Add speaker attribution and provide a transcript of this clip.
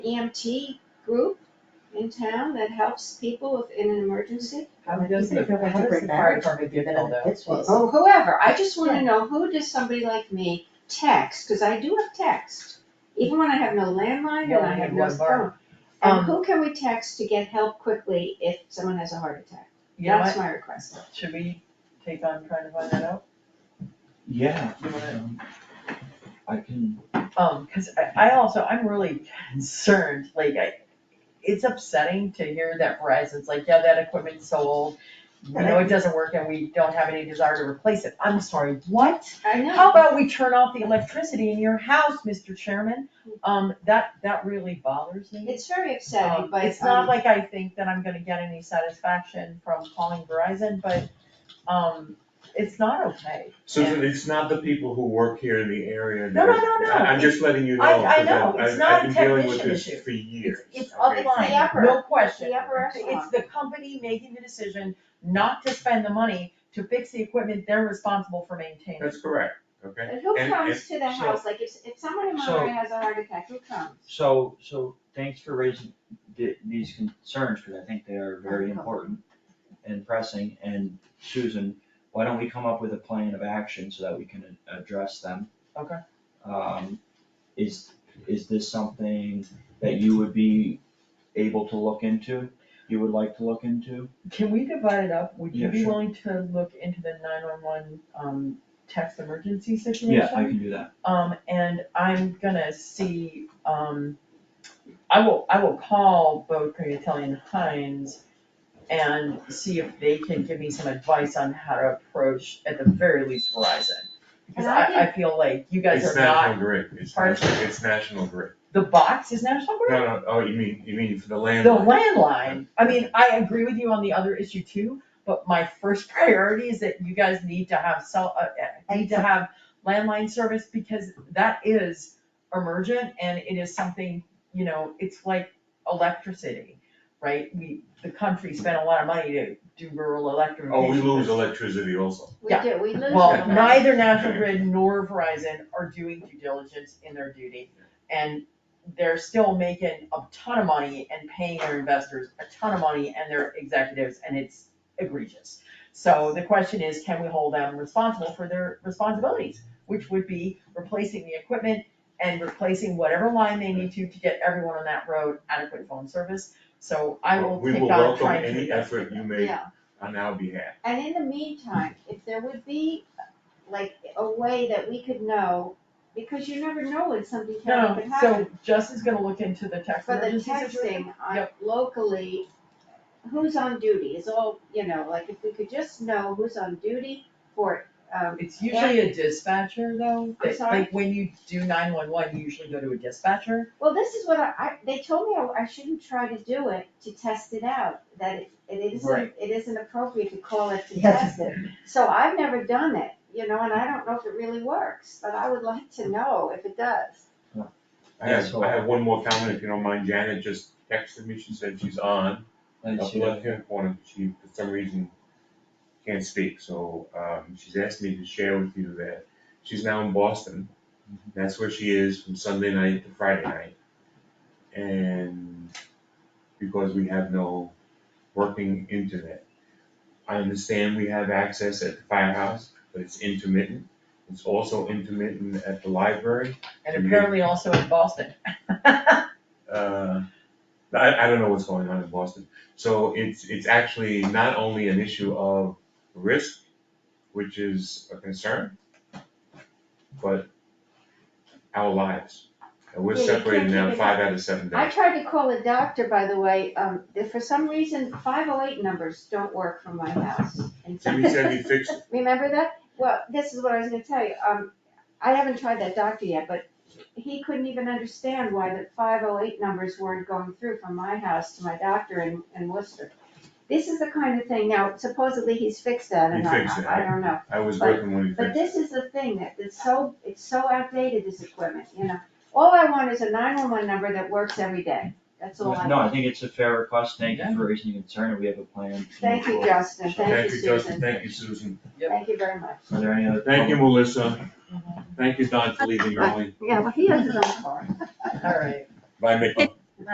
Speaker 1: EMT E group in town that helps people if in an emergency?
Speaker 2: How
Speaker 3: You
Speaker 2: does
Speaker 3: think
Speaker 2: the,
Speaker 3: you're
Speaker 2: how
Speaker 3: going to
Speaker 2: does
Speaker 3: bring
Speaker 2: the fire
Speaker 3: marriage
Speaker 2: department do that
Speaker 3: people
Speaker 2: on
Speaker 3: though?
Speaker 2: the Pittsburgh?
Speaker 1: Or whoever, I just wanna know, who does somebody like me text, cause I do have text, even when I have no landline
Speaker 2: You
Speaker 1: and
Speaker 2: only
Speaker 1: I have
Speaker 2: need
Speaker 1: no
Speaker 2: one
Speaker 1: phone.
Speaker 2: bar.
Speaker 1: And
Speaker 2: Um,
Speaker 1: who can we text to get help quickly if someone has a heart attack?
Speaker 2: You know
Speaker 1: That's
Speaker 2: what,
Speaker 1: my request.
Speaker 2: should we take on trying to find that out?
Speaker 4: Yeah.
Speaker 2: You wanna-
Speaker 4: um, I can,
Speaker 2: Um, cause I, I also, I'm really concerned, like, I, it's upsetting to hear that Verizon's like, yeah, that equipment's so old. You
Speaker 3: And I-
Speaker 2: know, it doesn't work and we don't have any desire to replace it, I'm sorry, what?
Speaker 1: I know.
Speaker 2: How about we turn off the electricity in your house, Mr. Chairman? Um, that, that really bothers me.
Speaker 1: It's very upsetting,
Speaker 2: Um,
Speaker 1: but.
Speaker 2: It's not
Speaker 1: um,
Speaker 2: like I think that I'm gonna get any satisfaction from calling Verizon, but, um, it's not okay.
Speaker 5: Susan, it's not the people who work here in the area.
Speaker 2: No, no,
Speaker 5: that-
Speaker 2: no, no.
Speaker 5: I- I'm just letting you know.
Speaker 2: I- I
Speaker 5: 'cause
Speaker 2: know. It's
Speaker 5: I've-
Speaker 2: not a
Speaker 5: I've been dealing with
Speaker 2: technician
Speaker 5: this
Speaker 2: issue.
Speaker 5: for years.
Speaker 2: It's
Speaker 5: okay?
Speaker 1: It's the
Speaker 2: upline,
Speaker 1: upper-
Speaker 2: no question.
Speaker 1: The upper
Speaker 2: It's
Speaker 1: echelon.
Speaker 2: the company making the decision not to spend the money to fix the equipment they're responsible for maintaining.
Speaker 5: That's correct, okay?
Speaker 1: And who
Speaker 5: and-
Speaker 1: comes to the
Speaker 4: so-
Speaker 1: house, like if, if someone in
Speaker 4: so-
Speaker 1: Monterey has a heart attack, who comes?
Speaker 4: so, so thanks for raising the, these concerns, because I think they are very
Speaker 1: Uh-huh.
Speaker 4: important and pressing, and Susan, why don't we come up with a plan of action so that we can a- address them?
Speaker 2: Okay.
Speaker 4: Um, is, is this something that you would be able to look into, you would like to look into?
Speaker 2: Can we divide it up? Would you
Speaker 4: Yeah,
Speaker 2: be
Speaker 4: sure.
Speaker 2: willing to look into the nine-one-one, um, text emergency situation?
Speaker 4: Yeah, I can do that.
Speaker 2: Um, and I'm gonna see, um, I will, I will call both Cognatelli and Heinz and see if they can give me some advice on how to approach, at the very least Verizon. Because
Speaker 1: And I
Speaker 2: I, I feel like you guys
Speaker 5: It's
Speaker 2: are
Speaker 5: national
Speaker 2: not,
Speaker 5: grid, it's
Speaker 2: Pardon?
Speaker 5: national, it's national grid.
Speaker 2: the box is National Grid?
Speaker 5: No, no, oh, you mean, you mean for the land?
Speaker 2: The landline, I mean, I agree with you on the other issue too, but my first priority is that you guys need to have cell, uh, uh, need to have landline service because that is emergent and it is something, you know, it's like electricity, right? We, the country spent a lot of money to do rural electrification.
Speaker 5: Oh, we lose electricity also.
Speaker 1: We
Speaker 2: Yeah.
Speaker 1: do, we lose.
Speaker 2: Well,
Speaker 1: them.
Speaker 2: neither National Grid nor Verizon are doing due diligence in their duty. And they're still making a ton of money and paying their investors a ton of money and their executives, and it's egregious. So the question is, can we hold them responsible for their responsibilities? Which would be replacing the equipment and replacing whatever line they need to to get everyone on that road adequate phone service. So I will
Speaker 5: We
Speaker 2: take
Speaker 5: will
Speaker 2: on
Speaker 5: welcome
Speaker 2: trying to.
Speaker 5: any effort you make
Speaker 1: Yeah,
Speaker 5: on our behalf.
Speaker 1: and in the meantime, if there would be like a way that we could know, because you never know when something terrible
Speaker 2: No,
Speaker 1: could happen.
Speaker 2: so Justin's gonna look into the text
Speaker 1: For the
Speaker 2: emergency situation.
Speaker 1: texting, I
Speaker 2: Yep.
Speaker 1: locally, who's on duty is all, you know, like if we could just know who's on duty for, um,
Speaker 2: It's usually a dispatcher though,
Speaker 1: I'm
Speaker 2: that-
Speaker 1: sorry?
Speaker 2: like when you do nine one one, you usually go to a dispatcher.
Speaker 1: Well, this is what I, I, they told me I, I shouldn't try to do it, to test it out, that it, it isn't,
Speaker 2: Right.
Speaker 1: it isn't appropriate to call it to
Speaker 3: Yes,
Speaker 1: test it. So I've never done it, you know, and I don't know if it really works, but I would like to know if it does.
Speaker 5: I
Speaker 4: Yeah,
Speaker 5: have,
Speaker 4: so-
Speaker 5: I have one more comment, if you don't mind, Janet just texted me, she said she's on.
Speaker 4: Let's
Speaker 5: up
Speaker 4: see.
Speaker 5: left-hand corner, she, for some reason, can't speak, so, um, she's asked me to share with you that she's now in Boston. That's where she is from Sunday night to Friday night. And because we have no working internet. I understand we have access at the firehouse, but it's intermittent. It's also intermittent at the library.
Speaker 2: And
Speaker 5: Mhm.
Speaker 2: apparently also in Boston.
Speaker 5: Uh, I, I don't know what's going on in Boston. So it's, it's actually not only an issue of risk, which is a concern, but our lives. And we're
Speaker 1: Yeah, you can't
Speaker 5: separated now
Speaker 1: keep it
Speaker 5: five
Speaker 1: up.
Speaker 5: out of seven
Speaker 1: I
Speaker 5: days.
Speaker 1: tried to call a doctor, by the way, um, if for some reason, five oh eight numbers don't work from my house. And so-
Speaker 5: Jimmy said he fixed it.
Speaker 1: Remember that? Well, this is what I was gonna tell you, um, I haven't tried that doctor yet, but he couldn't even understand why the five oh eight numbers weren't going through from my house to my doctor in, in Worcester. This is the kind of thing, now supposedly he's fixed that and
Speaker 5: He
Speaker 1: I,
Speaker 5: fixed it.
Speaker 1: I don't know,
Speaker 5: I was
Speaker 1: But-
Speaker 5: working when he
Speaker 1: but
Speaker 5: fixed it.
Speaker 1: this is the thing that, it's so, it's so outdated, this equipment, you know? All I want is a nine one one number that works every day, that's all I
Speaker 4: No, I
Speaker 1: want.
Speaker 4: think it's a fair request, thank you
Speaker 2: Yeah.
Speaker 4: for raising your concern, and we have a plan. to move
Speaker 1: Thank you,
Speaker 4: forward.
Speaker 1: Justin,
Speaker 4: So-
Speaker 1: thank you,
Speaker 5: Justin,
Speaker 1: Susan,
Speaker 5: thank you, Susan.
Speaker 1: thank you very much.
Speaker 4: Are there any other?
Speaker 5: Thank you,
Speaker 4: public-
Speaker 5: Melissa. Thank you, Don, for leaving early.
Speaker 1: Yeah, well, he has his own car.
Speaker 2: Alright.
Speaker 5: Bye, Mick.